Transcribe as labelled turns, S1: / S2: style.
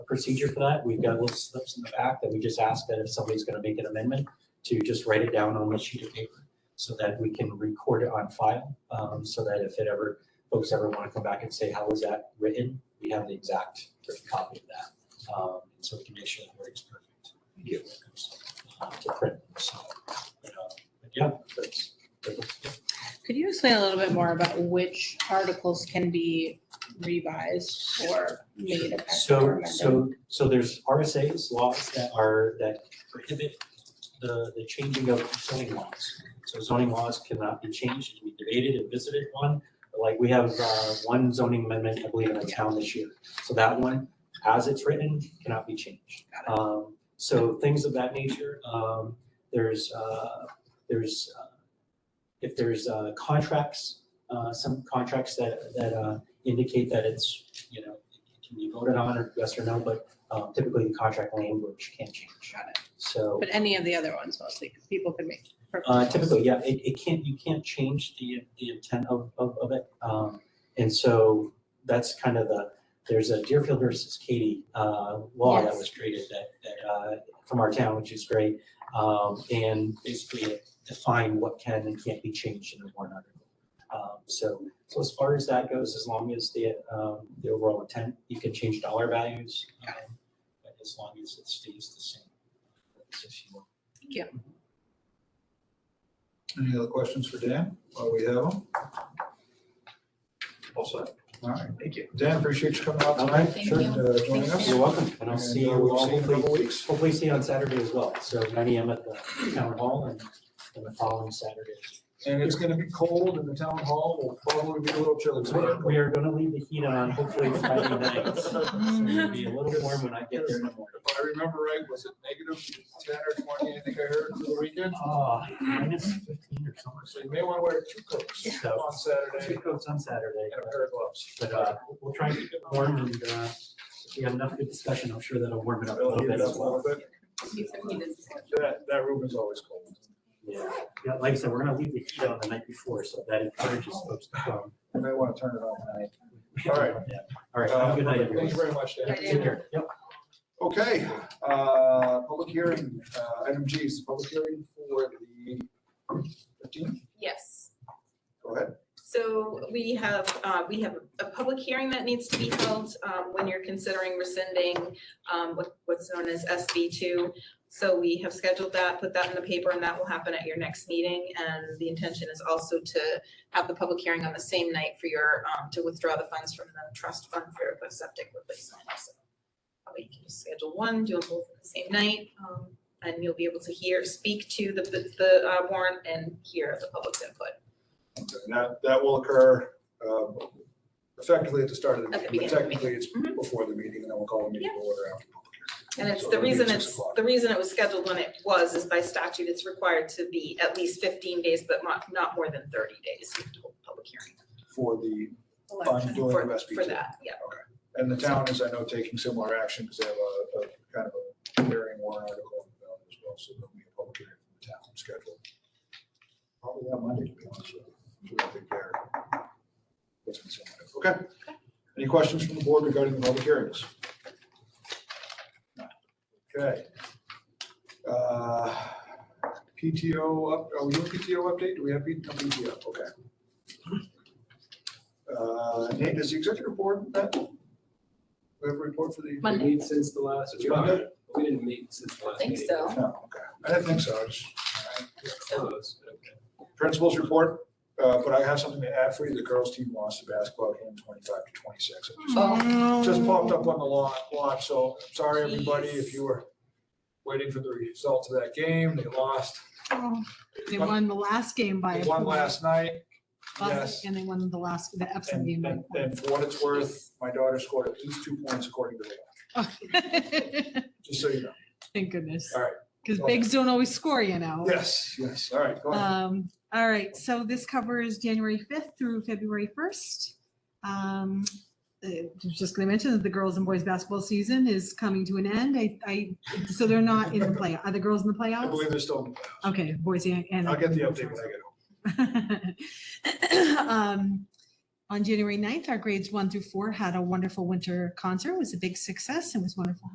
S1: a procedure for that. We've got little slips in the back that we just ask that if somebody's gonna make an amendment, to just write it down on a sheet of paper so that we can record it on file, um, so that if it ever, folks ever wanna come back and say, how was that written? We have the exact written copy of that, um, so we can make sure that it's perfect. uh, To print, so, you know, but yeah, that's, that's-
S2: Could you explain a little bit more about which articles can be revised or made effective or
S1: So,
S2: amended?
S1: so, so there's RSA's laws that are, that prohibit the, the changing of zoning laws. So zoning laws cannot be changed, we debated and visited one, but like we have uh, one zoning amendment, I believe, in the town this year. So that one, as it's written, cannot be changed. Um, So things of that nature, um, there's, uh, there's, uh, if there's uh, contracts, uh, some contracts that, that uh, indicate that it's, you know, it can be voted on or yes or no, but um, typically the contract language can change on it. So.
S2: But any of the other ones mostly, 'cause people can make.
S1: Uh, typically, yeah, it, it can't, you can't change the, the intent of, of, of it. Um, and so that's kind of the, there's a Deerfield versus Katy, uh, law that
S2: Yes.
S1: was created that, that, uh, from our town, which is great. Um, and basically it defined what can and can't be changed in a warrant article. Um, so, so as far as that goes, as long as the, um, the overall intent, you can change dollar values. um, But as long as it stays the same. That's if you want.
S3: Any other questions for Dan while we have him? All set. All right. Thank you. Dan, appreciate you coming out
S1: All
S3: tonight.
S1: right,
S4: Thank
S1: sure.
S4: you.
S3: and, uh, Joining us.
S1: You're welcome, and I'll
S3: And,
S1: see
S3: uh,
S1: you
S3: we'll
S1: all
S3: see you in a
S1: hopefully,
S3: couple weeks.
S1: hopefully see you on Saturday as well. So nine AM at the town hall and then the following Saturday.
S3: And it's gonna be cold in the town hall. We'll probably be a little chilly.
S1: So we're- We are gonna leave the heat on hopefully Friday night. So It'll be a little warm when I get there in the morning.
S3: If I remember right, was it negative ten or twenty, I think I heard for the weekend?
S1: Oh, minus fifteen or something.
S3: So you may wanna wear two coats
S1: So
S3: on Saturday
S1: two coats on Saturday,
S3: and a pair of gloves.
S1: but uh, we'll try and keep it warm and uh, if we have enough good discussion, I'm sure that'll warm it up a
S3: It'll
S1: little
S3: heat
S1: bit
S3: it up
S1: as
S3: a
S1: well.
S3: little bit. That, that room is always cold.
S1: Yeah, yeah, like I said, we're gonna leave the heat on the night before, so that encourages folks to come.
S3: You may wanna turn it on tonight. All right.
S1: Yeah. All right, have a good
S3: Uh,
S1: night, everyone.
S3: Thank you very much, Dan.
S2: Yeah,
S1: Take care. Yep.
S3: Okay, uh, public hearing, uh, item G is the public hearing for the fifteenth,
S4: Yes.
S3: go ahead.
S4: So we have, uh, we have a public hearing that needs to be held, um, when you're considering rescinding, um, what, what's known as SB two. So we have scheduled that, put that in the paper, and that will happen at your next meeting. And the intention is also to have the public hearing on the same night for your, um, to withdraw the funds from the trust fund for the septic replacement. So Probably you can just schedule one, do them both on the same night, um, and you'll be able to hear, speak to the, the, the uh, warrant and hear the public's input.
S3: And That, that will occur, um, effectively at the start of the
S4: At the
S3: meeting, but
S4: beginning of the
S3: technically it's
S4: Mhm.
S3: before the meeting, and then we'll call the meeting to order after. public
S4: And it's,
S3: So
S4: the
S3: it'll be
S4: reason
S3: six
S4: it's,
S3: o'clock.
S4: the reason it was scheduled when it was is by statute, it's required to be at least fifteen days, but not, not more than thirty days. You have to hold a Public hearing
S3: hearing For the,
S2: election.
S3: I'm doing
S4: for,
S3: the best we
S4: for
S3: can.
S4: that, yeah.
S3: And the town is, I know, taking similar action because they have a, a kind of a hearing warrant article in the ballot as well, so there'll be a public hearing from the town scheduled. Probably that Monday, to be honest with you. I think they're- it's been sent out. Okay. Any questions from the board regarding the public hearings? No. Okay. Uh, PTO, up- are we doing PTO update? Do we have P- no PTO? Okay. Uh, Nate, is the executive board, that, we have a report for the?
S2: Monday.
S5: We meet since the last,
S3: Did you have it?
S5: we didn't meet since the last meeting.
S4: so.
S3: No, okay. I didn't think so. I just- all
S5: Close, okay.
S3: right. Principals report, uh, but I have something to add for you. The girls' team lost the basketball game twenty-five to twenty-six. It just-
S4: Hmm.
S2: Oh.
S3: Just popped up on the lawn, watch, so I'm sorry, everybody, if you were waiting for the results of that game. They lost.
S6: Oh, They won the last game by
S3: They
S6: a
S3: won
S6: point.
S3: last night.
S6: Last-
S3: Yes.
S6: And they won the last, the Epsom
S3: And,
S6: game. by a
S3: and, and for what it's worth, my daughter scored at least two points according to the law,
S6: point.
S3: just so you know.
S6: Thank goodness.
S3: All right.
S6: Because
S3: Go
S6: bigs don't always score, you know.
S3: Yes, yes. All right, go ahead.
S6: Um, all right, so this covers January fifth through February first. Um, uh, was just gonna mention that the girls and boys basketball season is coming to an end. I, I, so they're not in the play, are the girls in the
S3: I
S6: playoffs?
S3: believe they're still,
S6: Okay, Boise and.
S3: I'll get the update when I get home.
S6: Um, On January 9th, our grades one through four had a wonderful winter concert. It was a big success. It was wonderful